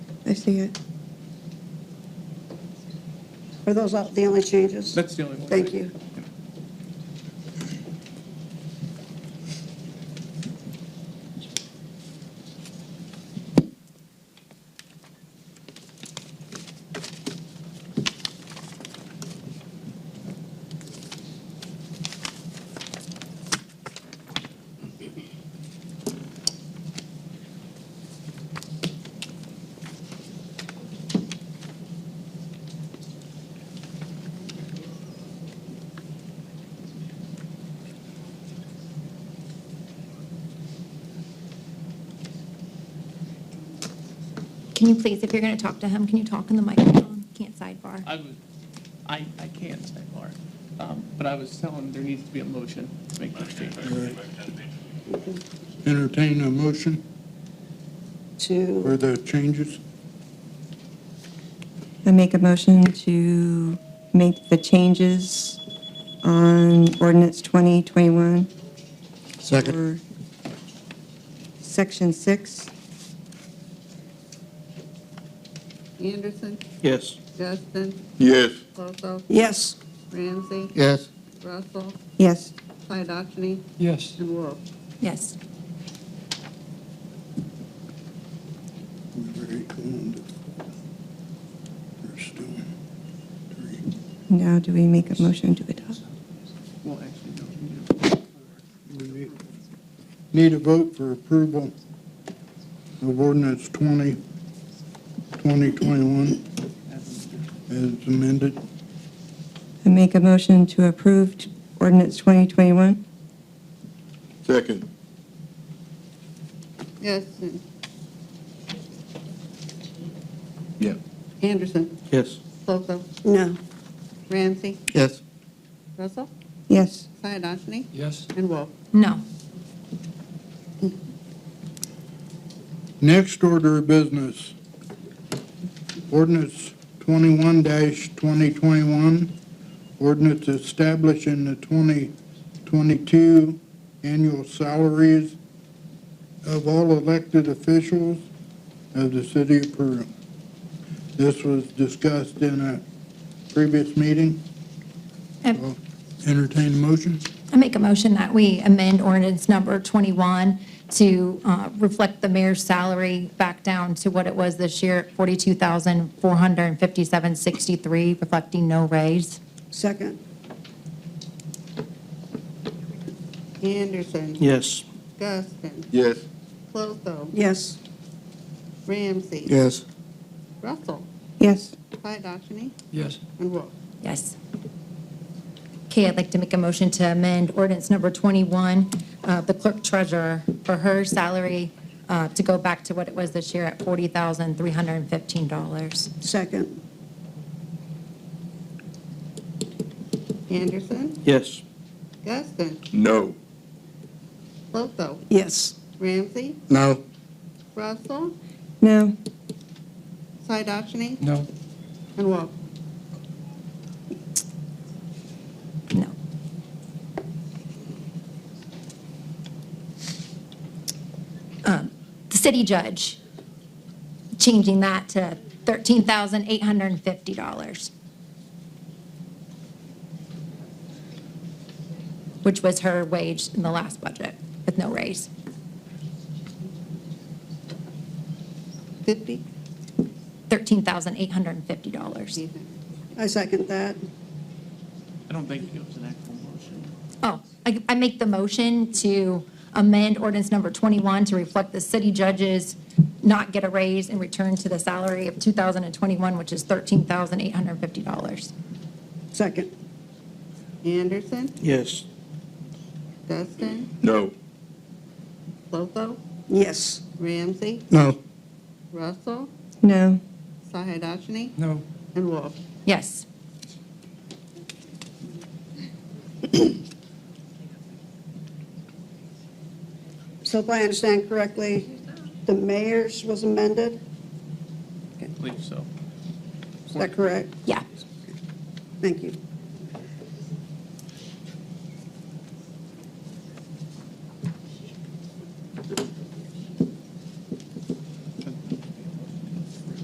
I see it. Are those all the only changes? That's the only one. Thank you. Can you please, if you're going to talk to him, can you talk in the microphone? Can't sidebar. I was, I, I can't say more, Um, but I was telling there needs to be a motion to make those changes. Entertain a motion To, for the changes? I make a motion to make the changes on ordinance 2021 Second. for section six. Anderson, Yes. Justin, Yes. Bosso, yes, Ramsey, Yes. Russell, Yes, Piadochny, Yes. and Wolf. Yes. now do we make a motion to adopt? Well, actually, no. we need to- Need a vote for approval of ordinance 20, 2021 as amended. I make a motion to approve t- ordinance 2021? Second. Justin, Yeah. Anderson, Yes. Bosso, no, Ramsey, Yes. Russell, Yes. Piadochny, Yes. and Wolf. No. Next order of business, ordinance 21-2021, ordinance establishing the 2022 annual salaries of all elected officials of the city of Peru. This was discussed in a previous meeting. I Entertain a motion? I make a motion that we amend ordinance number 21 to uh, reflect the mayor's salary back down to what it was this year, $42,457.63, reflecting no raise. second, Anderson, Yes. Justin, Yes. Bosso, yes, Ramsey, Yes. Russell, Yes. Piadochny, Yes. and Wolf. Yes. Okay, I'd like to make a motion to amend ordinance number 21, uh, the clerk treasurer, for her salary uh, to go back to what it was this year at $40,315. second, Anderson, Yes. Justin, No. Bosso, yes, Ramsey, No. Russell, No, Piadochny, No. and Wolf. No. Um, The city judge, changing that to $13,850, which was her wage in the last budget with no raise. Fifty, $13,850. I second that, I don't think it was an actual motion. Oh, I, I make the motion to amend ordinance number 21 to reflect the city judges not get a raise and return to the salary of 2021, which is $13,850. second, Anderson, Yes. Justin, No. Bosso, yes, Ramsey, No. Russell, no, Sahadachny, No. and Wolf. Yes. so if I understand correctly, the mayor's was amended, I believe so. is that correct? Yeah. Thank you.